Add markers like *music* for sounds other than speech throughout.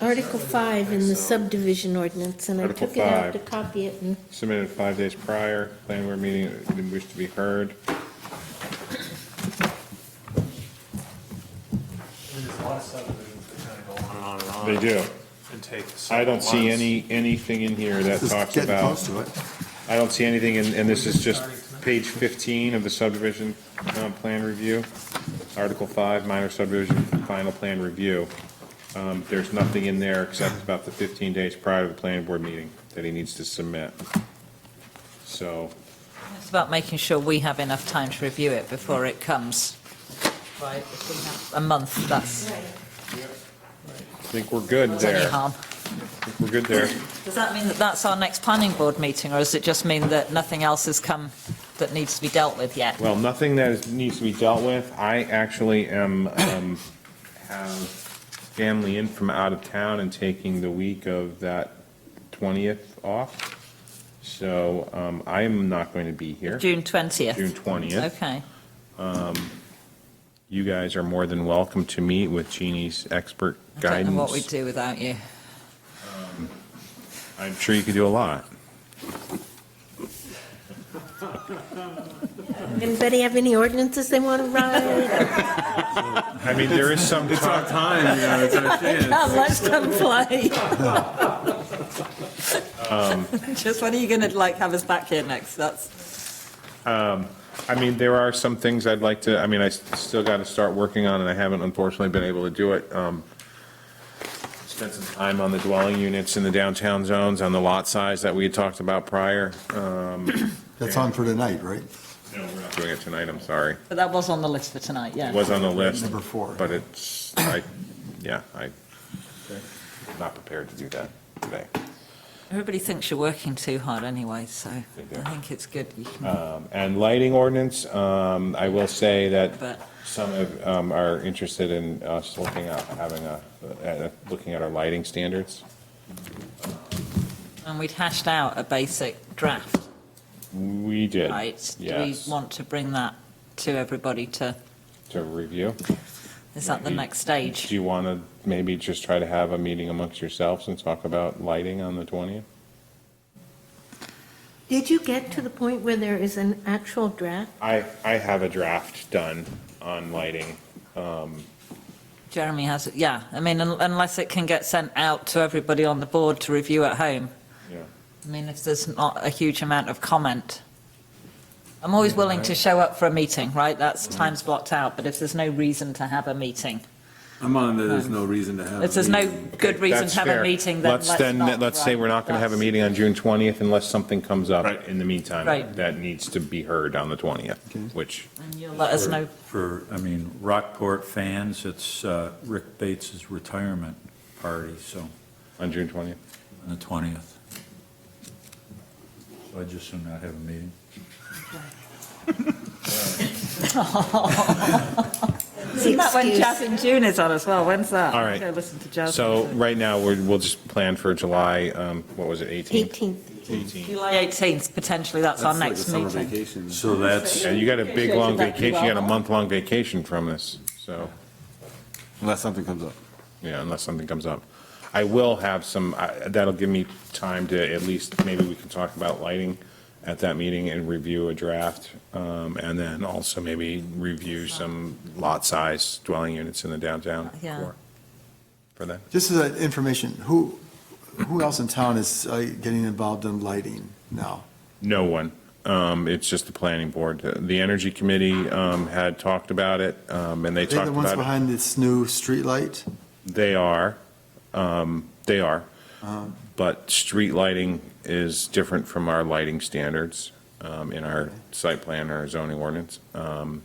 Article 5 in the subdivision ordinance, and I Article took it out five. to copy it, and submitted five days prior, planning board meeting, didn't wish to be heard. There's a lot of subdivisions that kind of go on and on and on. They do. And take. I several don't see months. any, anything in here that Just talks Getting close about, to it. I don't see anything, and, and this is just page fifteen of the subdivision, um, plan review. Article five, minor subdivision, final plan review. Um, there's nothing in there except about the fifteen days prior to the planning board meeting that he needs to submit. So, It's about making sure we have enough time to review it before it comes. Right, if we have a month, that's I think we're good that's any there. I harm. think We're good there. Does that mean that that's our next planning board meeting, or does it just mean that nothing else has come that needs to be dealt with yet? Well, nothing that is, needs to be dealt with. I actually am, um, have family in from out of town and taking the week of that twentieth off. So, um, I am not going to be here. June 20th? June 20th. Okay. You guys are more than welcome to meet with Jeannie's expert I don't know what we'd guidance. do without you. I'm sure you could do a lot. anybody have any ordinances they want to *laughs* write? I mean, there is some talk, time, you know, it's our chance. Come, let's come play. Um, *laughs* Just when are you going to, like, have us back here next? That's, I mean, there are some things I'd like to, I mean, I s- still got to start working on, and I haven't unfortunately been able to do it. Um, Spent some time on the dwelling units in the downtown zones, on the lot size that we had talked about prior. Um, *coughs* That's on for tonight, right? no, we're not Doing it tonight, I'm sorry. but that was on the list for tonight, yeah. It was on the list. Number four. But it's, I, yeah, I, not prepared to do that today. Everybody thinks you're working too hard anyway, so They do. I think it's good you can Um, And lighting ordinance, um, I will say that But- some of, um, are interested in us looking at, having a, uh, looking at our lighting standards. And we'd hashed out a basic draft, We did. right? Yes, Do we want to bring that to everybody to, to review. is that the Maybe. next stage? Do you want to maybe just try to have a meeting amongst yourselves and talk about lighting on the 20th? Did you get to the point where there is an actual draft? I, I have a draft done on lighting. um, Jeremy has, it. yeah, I mean, un- unless it can get sent out to everybody on the board to review at home. Yeah. I mean, if there's not a huge amount of comment. I'm always willing to show up for a meeting, right? That's Mm-hmm. time's blocked out, but if there's no reason to have a meeting, um, I'm on, the there's no reason to have. if a there's no meeting. good reason to have a meeting, then let's Let's then, not, let's say right? we're not going to have a That's- meeting on June 20th unless something comes up Right. in the meantime Right. that needs to be heard on the 20th, which, And you'll let us know. For, I mean, Rockport fans, it's uh, Rick Bates's retirement party, so, on June 20th. on the 20th. So I just assume not have a meeting. Isn't that when Excuse. Jazz in June is on as well? When's that? All right. Go listen to Jazz. So right now, we're, we'll just plan for July, um, what was it, 18th? 18th. 18th. July 18th, potentially, that's our That's like a next summer meeting. vacation. So that's, Yeah, you got a big, long Appreciate that. vacation, you got a month-long vacation from this, so, Unless something comes up. yeah, unless something comes up. I will have some, I- that'll give me time to, at least, maybe we can talk about lighting at that meeting and review a draft, um, and then also maybe review some lot size dwelling units in the downtown Yeah. for, for that. Just as an information, who, who else in town is uh, getting involved in lighting now? No one. Um, It's just the planning board. The Energy Committee um, had talked about it, um, and they Are they talked the ones about it. behind this new streetlight? They are, um, they are. But street lighting is different from our lighting standards, um, in our site plan or zoning ordinance. Um,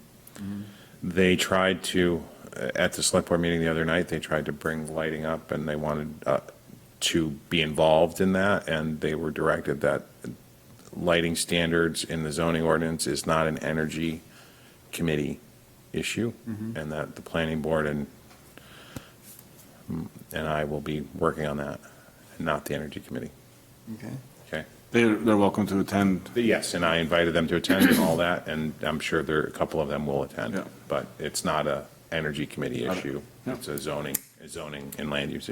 They tried to, uh, at the select board meeting the other night, they tried to bring lighting up and they wanted, uh, to be involved in that and they were directed that lighting standards in the zoning ordinance is not an energy committee issue and that the planning board and and I will be working on that, and not the Energy Committee. Okay. Okay? They're, they're welcome to attend. But yes, and I invited them to attend and all that, and I'm sure there, a couple of them will attend. Yeah. But it's not a Energy Committee Got it. issue. Yeah. It's a zoning, a zoning and land use